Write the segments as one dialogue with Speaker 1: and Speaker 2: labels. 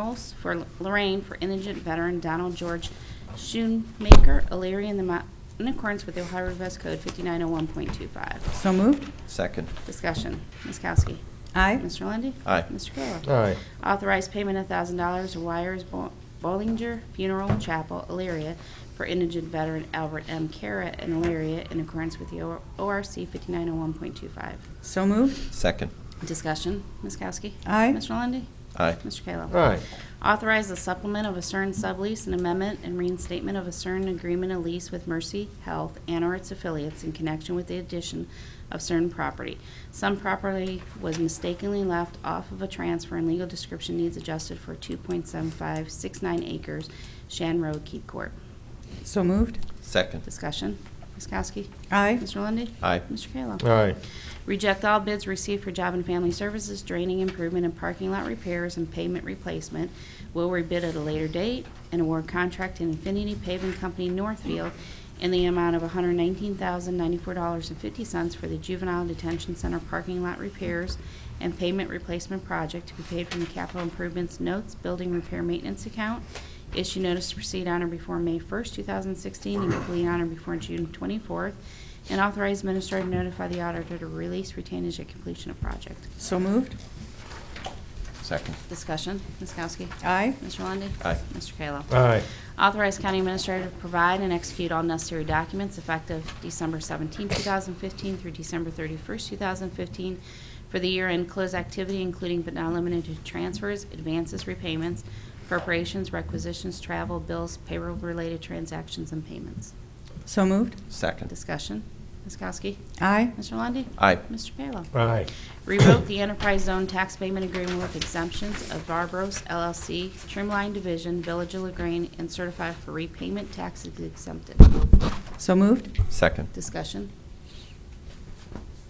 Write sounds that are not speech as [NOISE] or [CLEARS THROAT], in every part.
Speaker 1: House for Lorraine for indigent veteran Donald George Schoonmaker, Illyria, in the amount in accordance with the Ohio Revised Code 5901.25.
Speaker 2: So moved.
Speaker 3: Second.
Speaker 1: Discussion. Ms. Kowski.
Speaker 2: Aye.
Speaker 1: Mr. Lundey.
Speaker 3: Aye.
Speaker 1: Mr. Kayla.
Speaker 4: Aye.
Speaker 1: Authorize payment of thousand dollars to Wires Bo- Bollinger Funeral Chapel, Elyria, for indigent veteran Albert M. Carrot in Elyria, in accordance with the O- ORC 5901.25.
Speaker 2: So moved.
Speaker 3: Second.
Speaker 1: Discussion. Ms. Kowski.
Speaker 2: Aye.
Speaker 1: Mr. Lundey.
Speaker 3: Aye.
Speaker 1: Mr. Kayla.
Speaker 4: Aye.
Speaker 1: Authorize the supplement of a CERN sublease and amendment and reinstatement of a CERN agreement and lease with Mercy Health and or its affiliates in connection with the addition of CERN property. Some property was mistakenly left off of a transfer and legal description needs adjusted for 2.7569 acres, Shan Road, Keith Court.
Speaker 2: So moved.
Speaker 3: Second.
Speaker 1: Discussion. Ms. Kowski?
Speaker 2: Aye.
Speaker 1: Mr. Lundy.
Speaker 3: Aye.
Speaker 1: Mr. Kayla?
Speaker 4: Aye.
Speaker 1: Reject all bids received for job and family services, draining improvement and parking lot repairs and pavement replacement. Will rebid at a later date and award contract to Infinity Paving Company Northfield in the amount of $119,094.50 for the juvenile detention center parking lot repairs and pavement replacement project to be paid from the capital improvements notes, building repair maintenance account. Issue notice to proceed on or before May 1st, 2016, and complete on or before June 24th, and authorize minister to notify the auditor to release retainage at completion of project.
Speaker 2: So moved.
Speaker 3: Second.
Speaker 1: Discussion, Ms. Kowski.
Speaker 2: Aye.
Speaker 1: Mr. Lundey.
Speaker 3: Aye.
Speaker 1: Mr. Kayla.
Speaker 4: Aye.
Speaker 1: Authorize county administrator to provide and execute all necessary documents effective December 17, 2015 through December 31, 2015 for the year-end close activity, including but not limited to transfers, advances, repayments, appropriations, requisitions, travel, bills, payroll-related transactions, and payments.
Speaker 2: So moved.
Speaker 3: Second.
Speaker 1: Discussion. Ms. Kowski.
Speaker 2: Aye.
Speaker 1: Mr. Lundey.
Speaker 3: Aye.
Speaker 1: Mr. Kayla.
Speaker 4: Aye.
Speaker 1: Revoke the enterprise zone tax payment agreement with exemptions of Varbros LLC, Trimline Division, Village of Lagrange, and certify for repayment taxes exempted.
Speaker 2: So moved.
Speaker 3: Second.
Speaker 1: Discussion?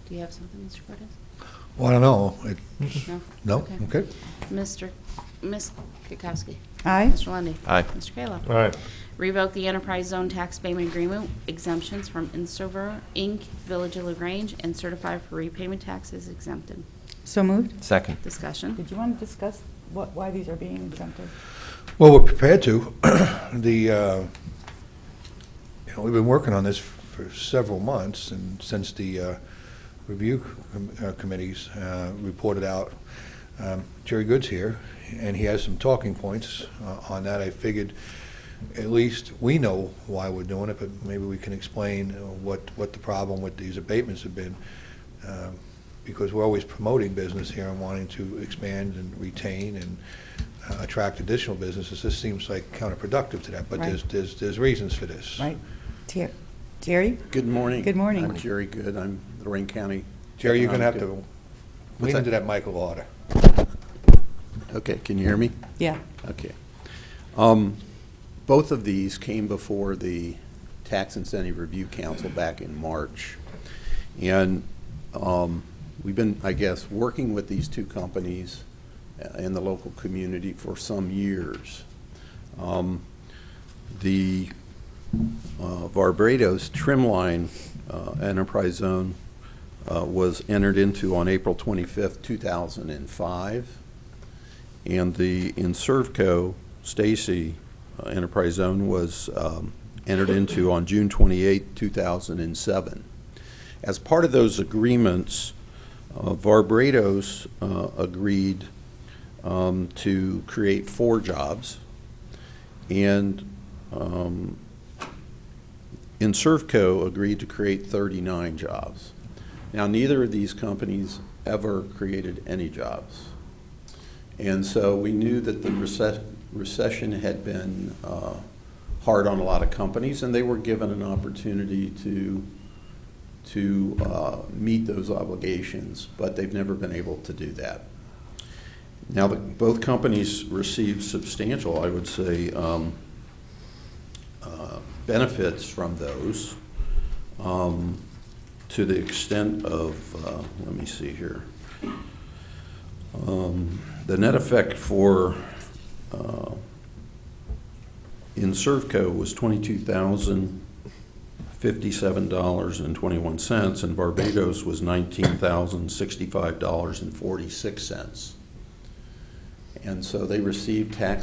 Speaker 1: Do you have something, Mr. Cortez?
Speaker 5: Well, I don't know. It's-
Speaker 1: No?
Speaker 5: No? Okay.
Speaker 1: Mr., Ms. Kukowski?
Speaker 2: Aye.
Speaker 1: Mr. Lundy.
Speaker 3: Aye.
Speaker 1: Mr. Kayla?
Speaker 4: Aye.
Speaker 1: Revoke the enterprise zone tax payment agreement exemptions from Instover, Inc., Village of Lagrange, and certify for repayment taxes exempted.
Speaker 2: So moved.
Speaker 3: Second.
Speaker 1: Discussion?
Speaker 6: Did you want to discuss what, why these are being exempted?
Speaker 5: Well, we're prepared to. [CLEARS THROAT] The, uh, you know, we've been working on this for several months, and since the uh, review com- uh, committees uh, reported out, um, Jerry Good's here, and he has some talking points uh, on that. I figured at least we know why we're doing it, but maybe we can explain uh, what, what the problem with these abatements have been, um, because we're always promoting business here and wanting to expand and retain and uh, attract additional businesses. This seems like counterproductive to that, but
Speaker 2: Right.
Speaker 5: there's, there's, there's reasons for this.
Speaker 2: Right. Ter- Jerry?
Speaker 7: Good morning.
Speaker 2: Good morning.
Speaker 7: I'm Jerry Good. I'm Lorraine County.
Speaker 5: Jerry, you're going to have
Speaker 7: Economic
Speaker 5: to
Speaker 7: What's
Speaker 5: lean
Speaker 7: that?
Speaker 5: into that Michael order.
Speaker 7: Dev- Okay, can you hear me?
Speaker 2: Yeah.
Speaker 7: Okay. Um, Both of these came before the Tax Incentive Review Council back in March. And um, we've been, I guess, working with these two companies uh, in the local community for some years. Um, The uh, Barbados Trimline uh, Enterprise Zone uh, was entered into on April 25th, 2005. And the Inservco Stacy uh, Enterprise Zone was um, entered into on June 28, 2007. As part of those agreements, uh, Varbrados uh, agreed um, to create four jobs, and um, Inservco agreed to create 39 jobs. Now, neither of these companies ever created any jobs. And so we knew that the recess- recession had been uh, hard on a lot of companies, and they were given an opportunity to, to uh, meet those obligations, but they've never been able to do that. Now, the- both companies received substantial, I would say, um, uh, benefits from those um, to the extent of, uh, let me see here. Um, The net effect for, uh, in Servco was $22,057.21, and Barbados was $19,065.46. And so they received tax